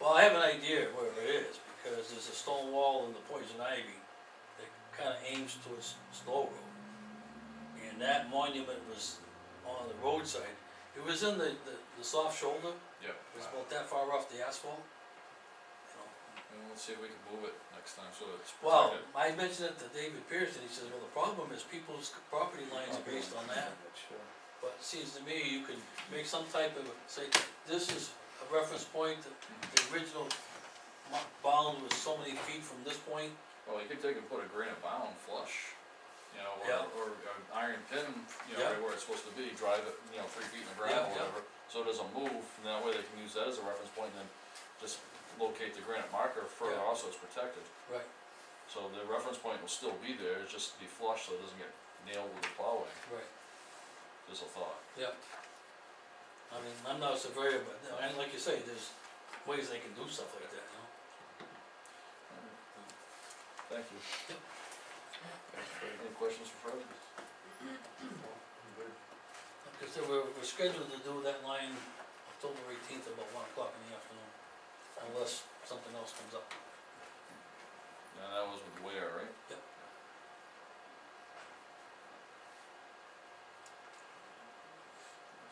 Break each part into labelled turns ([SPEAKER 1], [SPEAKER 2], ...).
[SPEAKER 1] Well, I have an idea where it is, because there's a stone wall in the poison ivy that kinda aims towards Stowe Road. And that monument was on the roadside, it was in the, the, the soft shoulder,
[SPEAKER 2] Yep.
[SPEAKER 1] it was about that far off the asphalt. You know,
[SPEAKER 2] And we'll see if we can move it next time, so it's
[SPEAKER 1] Well,
[SPEAKER 2] protected.
[SPEAKER 1] I mentioned it to David Pierce, and he says, well, the problem is people's property lines are based on that. But it seems to me, you could make some type of, say, this is a reference point, that the original mo- bound was so many feet from this point.
[SPEAKER 2] Well, you could take and put a granite bound flush, you know,
[SPEAKER 1] Yeah.
[SPEAKER 2] or, or an iron pin, you
[SPEAKER 1] Yeah.
[SPEAKER 2] know, right where it's supposed to be, drive it, you know, three feet in the
[SPEAKER 1] Yeah,
[SPEAKER 2] ground, or
[SPEAKER 1] yeah.
[SPEAKER 2] whatever. So it doesn't move, and that way they can use that as a reference point, and then just locate the granite marker further,
[SPEAKER 1] Yeah.
[SPEAKER 2] also it's protected.
[SPEAKER 1] Right.
[SPEAKER 2] So the reference point will still be there, it's just be flush, so it doesn't get nailed with the plowing,
[SPEAKER 1] Right,
[SPEAKER 2] just a thought.
[SPEAKER 1] yeah. I mean, I'm not a surveyor, but, you know, and like you say, there's ways they can do stuff like that, you know?
[SPEAKER 2] Thank you. Any questions for Fred?
[SPEAKER 1] Because they were, we're scheduled to do that line October eighteenth about one o'clock in the afternoon, unless something else comes up.
[SPEAKER 2] No, that was with Ware, right?
[SPEAKER 1] Yep.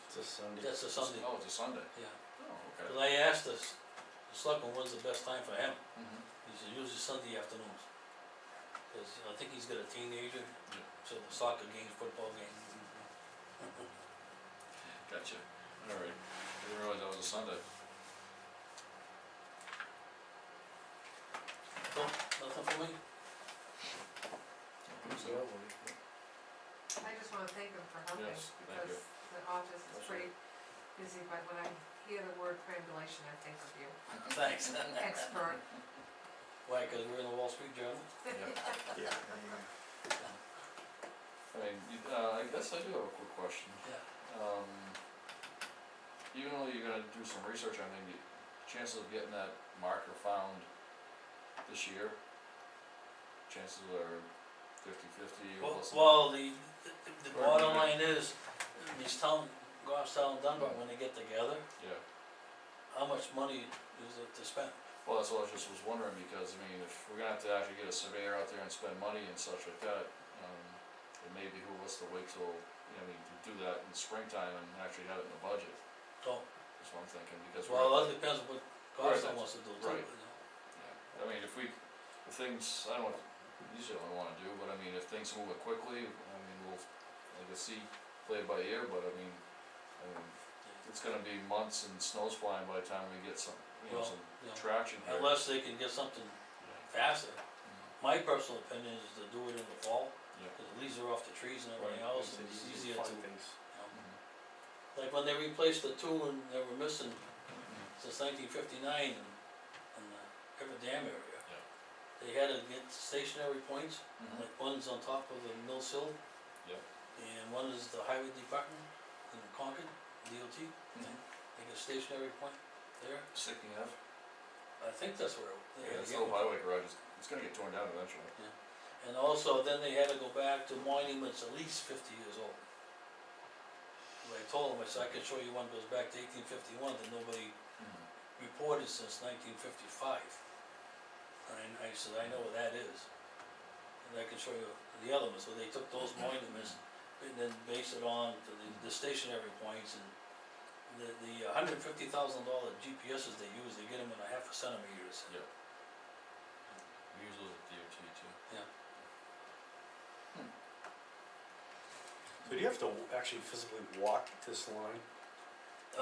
[SPEAKER 3] It's a Sunday.
[SPEAKER 1] That's a Sunday,
[SPEAKER 2] Oh, it's a Sunday.
[SPEAKER 1] yeah.
[SPEAKER 2] Oh, okay.
[SPEAKER 1] Cause I asked this, the selectman, when's the best time for him?
[SPEAKER 2] Mhm.
[SPEAKER 1] He said, usually Sunday afternoons. Cause you know, I think he's got a teenager,
[SPEAKER 2] Yeah.
[SPEAKER 1] so the soccer games, football games. Mm-hmm.
[SPEAKER 2] Gotcha, alright, I didn't realize that was a Sunday.
[SPEAKER 1] No, nothing for me?
[SPEAKER 3] So,
[SPEAKER 2] So,
[SPEAKER 4] I just wanna thank them for helping,
[SPEAKER 2] Yes, thank you.
[SPEAKER 4] because the office is
[SPEAKER 2] That's
[SPEAKER 4] pretty busy, but when I hear the word triangulation, I think of you,
[SPEAKER 1] Thanks.
[SPEAKER 4] expert.
[SPEAKER 1] Why, cause we're in the Wall Street Journal?
[SPEAKER 2] yeah,
[SPEAKER 3] yeah,
[SPEAKER 2] I mean, you- uh, I guess I do have a quick question,
[SPEAKER 1] Yeah.
[SPEAKER 2] um, even though you're gonna do some research on it, you- chances of getting that marker found this year? Chances are fifty fifty or
[SPEAKER 1] Well,
[SPEAKER 2] less than that?
[SPEAKER 1] well, the, the- the
[SPEAKER 2] Or
[SPEAKER 1] bottom
[SPEAKER 2] do
[SPEAKER 1] line is, these town, Goffstown, and Dunbar, when they get together,
[SPEAKER 2] Yeah,
[SPEAKER 1] how much money is it to spend?
[SPEAKER 2] well, that's what I just was wondering, because I mean, if we're gonna have to actually get a surveyor out there and spend money and such like that, um, it may behoove us to wait till, you know, I mean, to do that in springtime and actually have it in the budget,
[SPEAKER 1] So,
[SPEAKER 2] is what I'm thinking, because we're.
[SPEAKER 1] well, that depends what Goffstown
[SPEAKER 2] that's-
[SPEAKER 1] wants to do too, you
[SPEAKER 2] right.
[SPEAKER 1] know?
[SPEAKER 2] Yeah, I mean, if we, if things, I don't, usually I don't wanna do, but I mean, if things move it quickly, I mean, we'll, like, I see, play it by ear, but I mean, I mean, it's gonna be months and snow's flying by the time we get some, you know,
[SPEAKER 1] Well,
[SPEAKER 2] some
[SPEAKER 1] you know,
[SPEAKER 2] traction here.
[SPEAKER 1] Unless they can get something faster. My personal opinion is to do it in the fall,
[SPEAKER 2] Yeah.
[SPEAKER 1] cause the leaves are off the trees and everything else, and it's easier to, you know.
[SPEAKER 2] Mhm.
[SPEAKER 1] Like when they replaced the two and they were missing since nineteen fifty-nine in, in the Ever Dam area.
[SPEAKER 2] Yeah.
[SPEAKER 1] They had to get stationary points,
[SPEAKER 2] Mhm.
[SPEAKER 1] like one's on top of the Mills Hill.
[SPEAKER 2] Yep.
[SPEAKER 1] And one is the highway department in Concord, DOT,
[SPEAKER 2] Mhm.
[SPEAKER 1] they get a stationary point there,
[SPEAKER 2] Sticking up.
[SPEAKER 1] I think that's where. they
[SPEAKER 2] Yeah,
[SPEAKER 1] had to
[SPEAKER 2] this
[SPEAKER 1] get
[SPEAKER 2] little
[SPEAKER 1] one.
[SPEAKER 2] highway garage is, it's gonna get torn down eventually.
[SPEAKER 1] And also, then they had to go back to monuments at least fifty years old. And I told them, I said, I can show you one goes back to eighteen fifty-one that nobody Mm-hmm. reported since nineteen fifty-five. And I said, I know what that is. And I can show you the other ones, so they took those monuments and then based it on to the, the stationary points and the, the hundred fifty thousand dollar GPSs they use, they get them in a half a centimeter, so.
[SPEAKER 2] Yeah. We use those at DOT too.
[SPEAKER 3] So do you have to w- actually physically walk this line? Or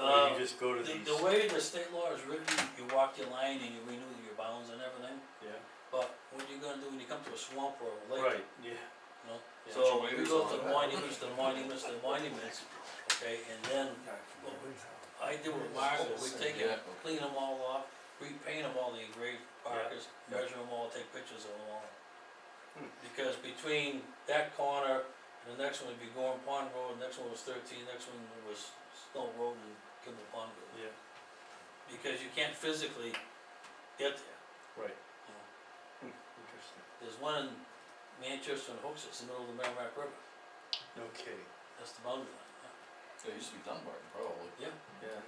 [SPEAKER 1] Uh,
[SPEAKER 3] do Oh, you just go to
[SPEAKER 1] The,
[SPEAKER 3] these?
[SPEAKER 1] the way the state law is written, you walk your line and you renew your bounds and everything,
[SPEAKER 3] Yeah,
[SPEAKER 1] but what are you gonna do when you come to a swamp or a lake?
[SPEAKER 3] right, yeah.
[SPEAKER 1] You know,
[SPEAKER 2] Put
[SPEAKER 3] Yeah.
[SPEAKER 1] so
[SPEAKER 2] your
[SPEAKER 1] we
[SPEAKER 2] waders
[SPEAKER 1] go
[SPEAKER 2] on
[SPEAKER 1] to the
[SPEAKER 2] it.
[SPEAKER 1] monuments, the monuments, the monuments, okay, and then what we- I do with marker, we take
[SPEAKER 2] Yeah,
[SPEAKER 1] it,
[SPEAKER 2] okay.
[SPEAKER 1] clean them all off, repaint them all, the engraved markers,
[SPEAKER 3] Yeah.
[SPEAKER 1] measure them all, take pictures of them all.
[SPEAKER 3] Hmm.
[SPEAKER 1] Because between that corner and the next one would be Gorm Pond Road, next one was thirteen, next one was Snow Road and Kimball Pond Road.
[SPEAKER 3] Yeah,
[SPEAKER 1] because you can't physically get there.
[SPEAKER 3] right.
[SPEAKER 1] you know.
[SPEAKER 3] Hmm, Interesting.
[SPEAKER 1] There's one in Manchester and Hooks, it's in the middle of the Merrimack River,
[SPEAKER 3] Okay,
[SPEAKER 1] that's the boundary line, yeah.
[SPEAKER 2] It used to be Dunbarton, probably.
[SPEAKER 3] yeah.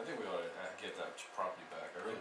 [SPEAKER 2] I think we ought to get that uh, property back, I really